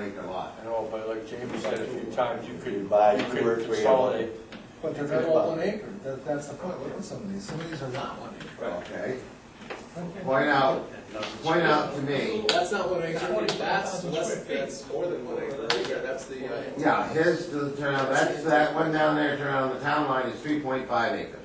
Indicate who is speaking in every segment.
Speaker 1: make a lot.
Speaker 2: I know, but like Jamie said a few times, you could, you
Speaker 3: two or
Speaker 2: could
Speaker 3: three of
Speaker 2: consolidate.
Speaker 4: But they're not all one acre, that, that's the point, look at some of these, some of these are not one acre.
Speaker 1: Okay, point out, point out to me,
Speaker 4: That's not one acre, that's, that's, that's more than one acre, yeah, that's the, uh,
Speaker 1: yeah, his, to the turn out, that's that one down there, turn on the town line is three point five acres.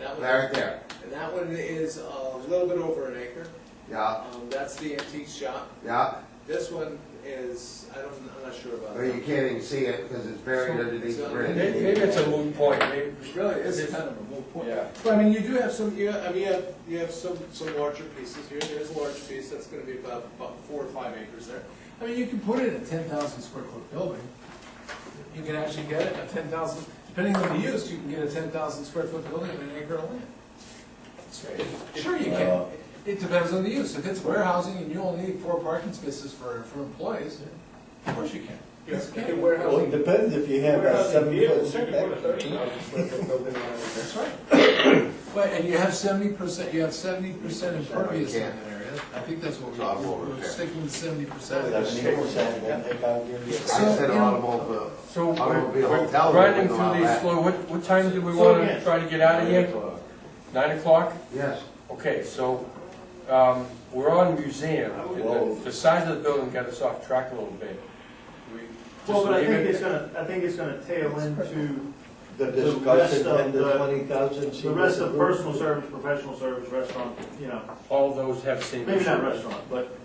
Speaker 4: yeah, that
Speaker 1: Right
Speaker 4: one,
Speaker 1: there,
Speaker 4: and that one is a little bit over an acre,
Speaker 1: yeah,
Speaker 4: um, that's the antique shop.
Speaker 1: yeah,
Speaker 4: This one is, I don't, I'm not sure about
Speaker 1: but you
Speaker 4: that.
Speaker 1: can't even see it because it's buried underneath the
Speaker 2: Maybe,
Speaker 1: bridge.
Speaker 2: maybe it's a moot point, maybe,
Speaker 4: Really, it's kind of a moot point.
Speaker 2: yeah.
Speaker 4: But I mean, you do have some, you, I mean, you have, you have some, some larger pieces here, there's a large piece, that's gonna be about, about four or five acres there. I mean, you can put in a ten thousand square foot building, you can actually get a ten thousand, depending on the use, you can get a ten thousand square foot building in an acre of land. Sure you can, it depends on the use, if it's warehousing and you only need four parking spaces for, for employees, of course you can. Yes, you can
Speaker 3: Well, it depends if you have a seven foot setback.
Speaker 4: That's right. Well, and you have seventy percent, you have seventy percent impervious in that area, I think that's what
Speaker 1: Top
Speaker 4: we-
Speaker 1: over
Speaker 4: we're, we're
Speaker 1: there.
Speaker 4: sticking with seventy percent.
Speaker 3: Seven percent, then they can't give you-
Speaker 1: I said automobile,
Speaker 2: So
Speaker 1: automobile
Speaker 2: we're
Speaker 1: hotel.
Speaker 2: grinding
Speaker 1: wouldn't allow
Speaker 2: through these
Speaker 1: that.
Speaker 2: slow, what, what time do we
Speaker 3: So
Speaker 2: wanna
Speaker 3: again-
Speaker 2: try to get out of here? Nine o'clock?
Speaker 1: Yes,
Speaker 2: Okay, so, um, we're on museum,
Speaker 3: Whoa.
Speaker 2: and the, the size of the building got us off track a little bit. We
Speaker 5: Well,
Speaker 2: just
Speaker 5: but I
Speaker 2: leave
Speaker 5: think
Speaker 2: it?
Speaker 5: it's gonna, I think it's gonna tail into
Speaker 3: The
Speaker 5: The rest
Speaker 3: discussion
Speaker 5: of
Speaker 3: and the
Speaker 5: the-
Speaker 3: twenty thousand. she
Speaker 5: the rest of
Speaker 3: was
Speaker 5: personal service, professional service, restaurant, you know,
Speaker 2: All those have same.
Speaker 5: maybe not
Speaker 2: issues.
Speaker 5: restaurant, but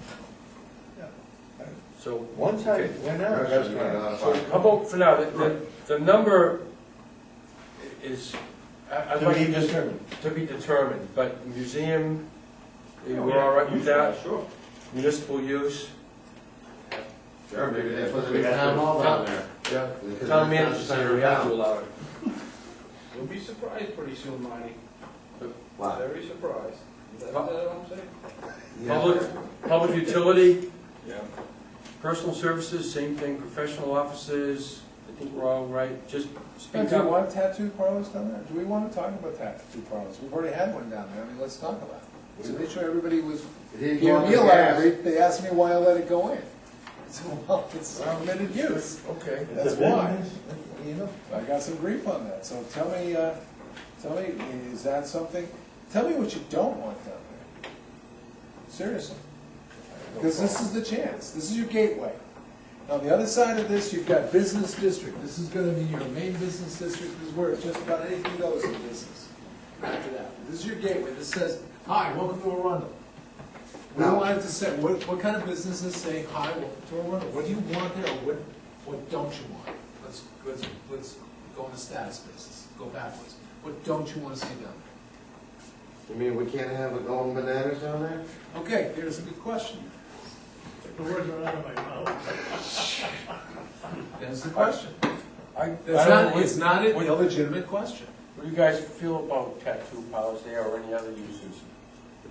Speaker 2: So,
Speaker 3: approved. One time, when I was.
Speaker 1: Restaurant, uh,
Speaker 2: so how about for now, the, the, the number i- is, I, I'd
Speaker 3: To
Speaker 2: like
Speaker 3: be
Speaker 2: to just
Speaker 3: determined.
Speaker 2: to be determined, but museum, eh,
Speaker 5: Yeah,
Speaker 2: we're all right with that,
Speaker 5: Sure.
Speaker 2: municipal use,
Speaker 1: sure, maybe that's supposed to be a town hall down there.
Speaker 2: yeah.
Speaker 1: because
Speaker 2: Town
Speaker 1: that's not
Speaker 2: manager
Speaker 1: the center
Speaker 2: center,
Speaker 1: of
Speaker 2: we have
Speaker 1: town.
Speaker 2: to allow it.
Speaker 6: You'll be surprised pretty soon, Marty.
Speaker 1: Wow.
Speaker 6: Very surprised. Is that
Speaker 2: Huh?
Speaker 6: what I'm saying?
Speaker 2: Public, public utility? Yeah. Personal services, same thing, professional offices, I think we're all right, just speak
Speaker 4: Do we
Speaker 2: up.
Speaker 4: want tattoo parlors down there? Do we want to talk about tattoo parlors? We've already had one down there, I mean, let's talk about it. To make sure everybody was,
Speaker 1: It didn't go
Speaker 4: you
Speaker 1: on the
Speaker 4: realize,
Speaker 1: gas.
Speaker 4: they they asked me why I let it go in. So, well, it's permitted use,
Speaker 2: Okay.
Speaker 4: that's
Speaker 3: It's a
Speaker 4: why.
Speaker 3: business.
Speaker 4: You know, I got some grief on that, so tell me, uh, tell me, is that something, tell me what you don't want down there. Seriously. Because this is the chance, this is your gateway. On the other side of this, you've got business district, this is gonna be your main business district, this is where just about anything goes in business. After that, this is your gateway, this says, hi, welcome to Arundel. We
Speaker 1: Now-
Speaker 4: wanted to say, what, what kind of businesses say, hi, welcome to Arundel, what do you want there, or what, what don't you want? Let's, let's, let's go on a status basis, go backwards, what don't you wanna see down
Speaker 1: You
Speaker 4: there?
Speaker 1: mean we can't have a golden bananas down there?
Speaker 4: Okay, here's a good question.
Speaker 5: The words are out of my mouth.
Speaker 4: There's the question.
Speaker 2: I, I don't
Speaker 4: It's
Speaker 2: know,
Speaker 4: not,
Speaker 2: what
Speaker 4: it's not an
Speaker 2: what-
Speaker 4: illegitimate question.
Speaker 2: what do you guys feel about tattoo parlors there or any other uses?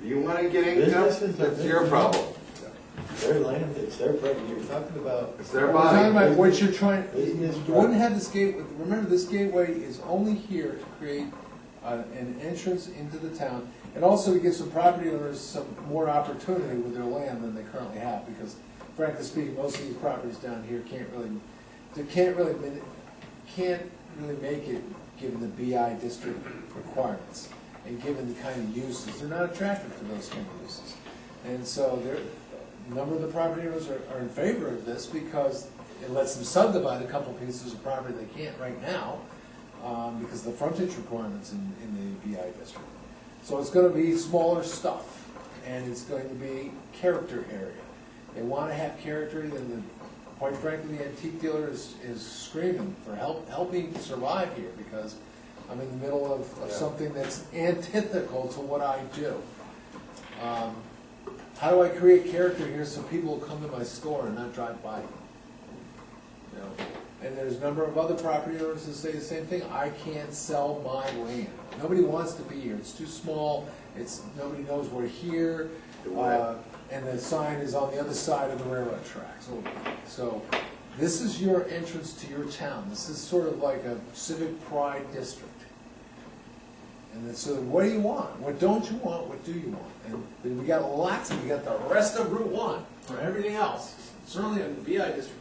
Speaker 1: If you wanna get income,
Speaker 3: Businesses are
Speaker 1: that's your
Speaker 3: businesses.
Speaker 1: problem.
Speaker 3: Their land, it's their property, you're talking about.
Speaker 1: It's their
Speaker 4: We're talking
Speaker 1: body.
Speaker 4: about what you're trying,
Speaker 3: Business
Speaker 4: you wouldn't have this gate, remember, this gateway is only here to create uh, an entrance into the town, and also to give some property owners some more opportunity with their land than they currently have, because frankly speaking, most of these properties down here can't really, they can't really, min- can't really make it, given the BI district requirements, and given the kind of uses, they're not attractive to those kind of uses. And so there, a number of the property owners are, are in favor of this because it lets them subdivide a couple pieces of property they can't right now, um, because of the frontage requirements in, in the BI district. So it's gonna be smaller stuff, and it's going to be character area. They wanna have character, then the, quite frankly, the antique dealer is, is screaming for help, help me survive here, because I'm in the middle of, of something that's antithetical to what I do. Um, how do I create character here so people will come to my store and not drive by? You know, and there's a number of other property owners that say the same thing, I can't sell my land. Nobody wants to be here, it's too small, it's, nobody knows we're here. Uh, And the sign is on the other side of the railroad tracks. Oh, So this is your entrance to your town, this is sort of like a civic pride district. And then, so what do you want? What don't you want? What do you want? And then we got lots, we got the rest of Route One for everything else. Certainly in the BI district,